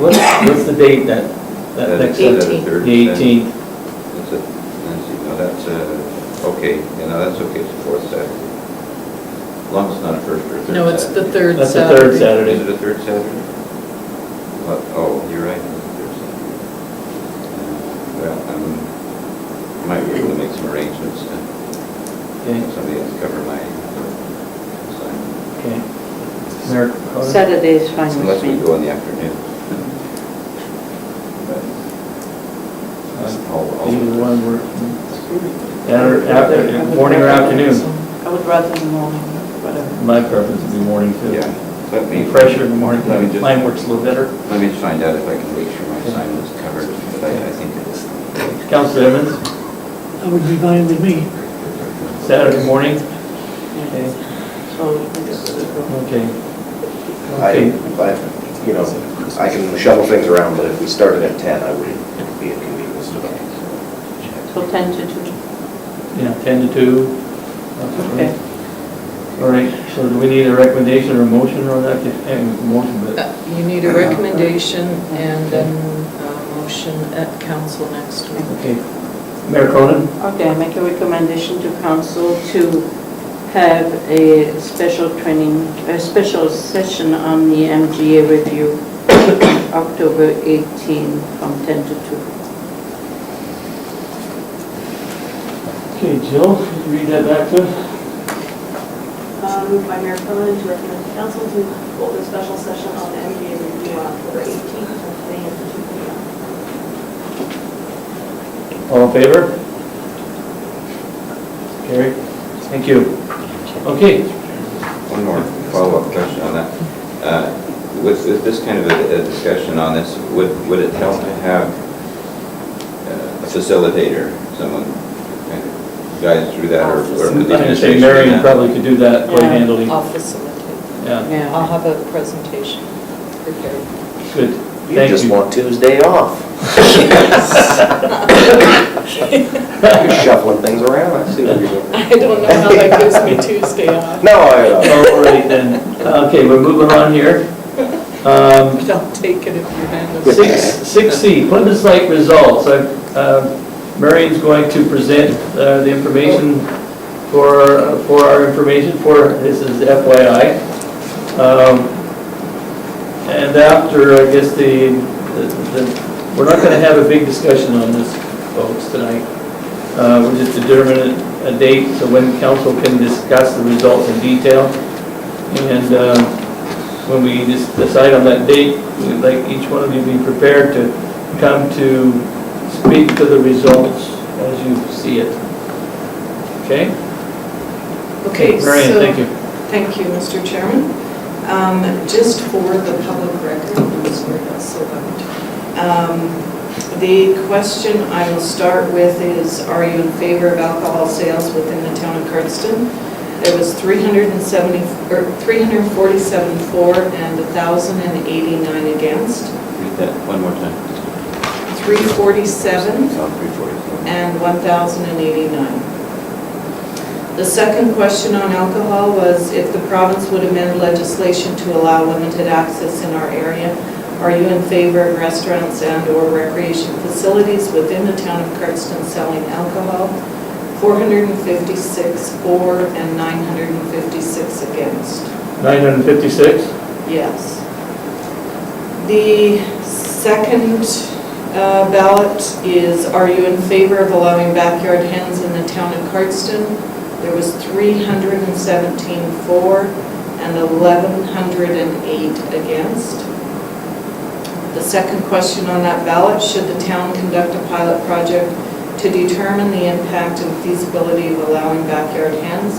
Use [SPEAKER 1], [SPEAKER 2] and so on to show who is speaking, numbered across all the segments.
[SPEAKER 1] What's the date that, that
[SPEAKER 2] That is-
[SPEAKER 1] next,
[SPEAKER 2] that
[SPEAKER 1] the
[SPEAKER 2] is
[SPEAKER 3] Eighteenth.
[SPEAKER 2] Thursday.
[SPEAKER 1] eighteenth?
[SPEAKER 2] That's a, let's see, no, that's, uh, okay, you know, that's okay, it's the fourth Saturday. As long as it's not a first or a third Saturday.
[SPEAKER 3] No, it's the third
[SPEAKER 1] That's the
[SPEAKER 3] Saturday.
[SPEAKER 1] third Saturday.
[SPEAKER 2] Is it a third Saturday? What, oh, you're right, it's a third Saturday. Uh, Well, I might be able to make some arrangements to
[SPEAKER 1] Okay,
[SPEAKER 2] have somebody else cover my uh, assignment.
[SPEAKER 1] okay. Mayor Carter?
[SPEAKER 4] Saturday is fine with
[SPEAKER 2] Unless we
[SPEAKER 4] me.
[SPEAKER 2] go in the afternoon. But
[SPEAKER 1] Uh,
[SPEAKER 2] I'll- I'll-
[SPEAKER 1] Either one, we're, yeah, or after, morning or afternoon?
[SPEAKER 4] I would rather in the morning, whatever.
[SPEAKER 1] My preference would be morning too.
[SPEAKER 2] Yeah, let me.
[SPEAKER 1] Fresher in the morning,
[SPEAKER 2] Let me just-
[SPEAKER 1] mine works a little better.
[SPEAKER 2] Let me just find out if I can make sure my assignment is covered, but I, I think it is.
[SPEAKER 1] Counselor Evans,
[SPEAKER 5] That would be fine with me.
[SPEAKER 1] Saturday morning? Okay,
[SPEAKER 4] So we just sort of go.
[SPEAKER 1] okay.
[SPEAKER 6] I,
[SPEAKER 1] Okay.
[SPEAKER 6] but, you know, I can shuffle things around, but if we started at 10, I wouldn't be inconvenienced about it.
[SPEAKER 4] So 10 to 2.
[SPEAKER 1] Yeah, 10 to 2.
[SPEAKER 4] Okay.
[SPEAKER 1] All right, so do we need a recommendation or a motion or that? Eh, Motion, but,
[SPEAKER 3] Uh, You need a recommendation and then a motion at council next week.
[SPEAKER 1] okay. Mayor Cronin?
[SPEAKER 4] Okay, I make a recommendation to council to have a special training, a special session on the MGA review, October 18, from 10 to 2.
[SPEAKER 1] Okay, Jill, could you read that back to us?
[SPEAKER 7] Um, By Mayor Quillen to recommend the council to hold a special session on the MDA review on October 18th from 10 a.m. to 2 p.m.
[SPEAKER 1] All in favor? Carried. Thank you. Okay,
[SPEAKER 2] One more follow-up question on that. Uh, With, with this kind of a a discussion on this, would, would it help to have uh, a facilitator, someone kind of guides through that, or or could the
[SPEAKER 1] I
[SPEAKER 2] administration? do
[SPEAKER 1] say Marion
[SPEAKER 2] that?
[SPEAKER 1] probably could do that quite
[SPEAKER 4] Yeah.
[SPEAKER 1] handily.
[SPEAKER 8] Oh.
[SPEAKER 3] I'll facilitate.
[SPEAKER 1] Yeah,
[SPEAKER 4] Yeah.
[SPEAKER 3] I'll have a presentation prepared.
[SPEAKER 1] good.
[SPEAKER 6] You
[SPEAKER 1] Thank
[SPEAKER 6] just
[SPEAKER 1] you.
[SPEAKER 6] want Tuesday off. You're shuffling things around, I see what you're doing.
[SPEAKER 3] I don't know how that gives me Tuesday off.
[SPEAKER 6] No, I, uh,
[SPEAKER 1] All right then. Okay, we're moving on here. Um,
[SPEAKER 3] But I'll take it if you handle it.
[SPEAKER 1] Six, six C, plebiscite results. I- uh, Marion's going to present uh, the information for, for our information, for, this is FYI. Um, And after, I guess, the, the- the- we're not going to have a big discussion on this, folks, tonight. Uh, We're just determining a date so when council can discuss the results in detail. And um, when we just decide on that date, we'd like each one of you to be prepared to come to speak to the results as you see it. Okay?
[SPEAKER 8] Okay, so...
[SPEAKER 1] Marion, thank you.
[SPEAKER 8] Thank you, Mr. Chairman. Um, Just for the public record, I'm sorry, that's so loud. Um, The question I will start with is, are you in favor of alcohol sales within the town of Cardston? There was 370, or 347 for and 1,089 against.
[SPEAKER 2] Read that one more time.
[SPEAKER 8] 347
[SPEAKER 2] South 347.
[SPEAKER 8] and 1,089. The second question on alcohol was if the province would amend legislation to allow limited access in our area, are you in favor of restaurants and/or recreation facilities within the town of Cardston selling alcohol? 456 for and 956 against.
[SPEAKER 1] 956?
[SPEAKER 8] Yes. The second uh, ballot is, are you in favor of allowing backyard hens in the town of Cardston? There was 317 for and 1,108 against. The second question on that ballot, should the town conduct a pilot project to determine the impact and feasibility of allowing backyard hens?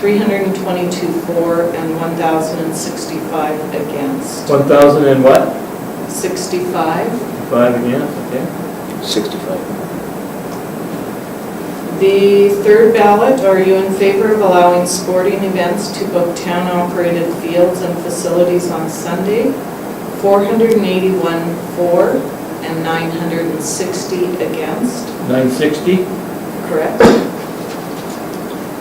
[SPEAKER 8] 322 for and 1,065 against.
[SPEAKER 1] 1,000 and what?
[SPEAKER 8] 65.
[SPEAKER 1] Five again,
[SPEAKER 6] know. 65.
[SPEAKER 8] The third ballot, are you in favor of allowing sporting events to book town-operated fields and facilities on Sunday? 481 for and 960 against,
[SPEAKER 1] okay. 960?
[SPEAKER 8] correct?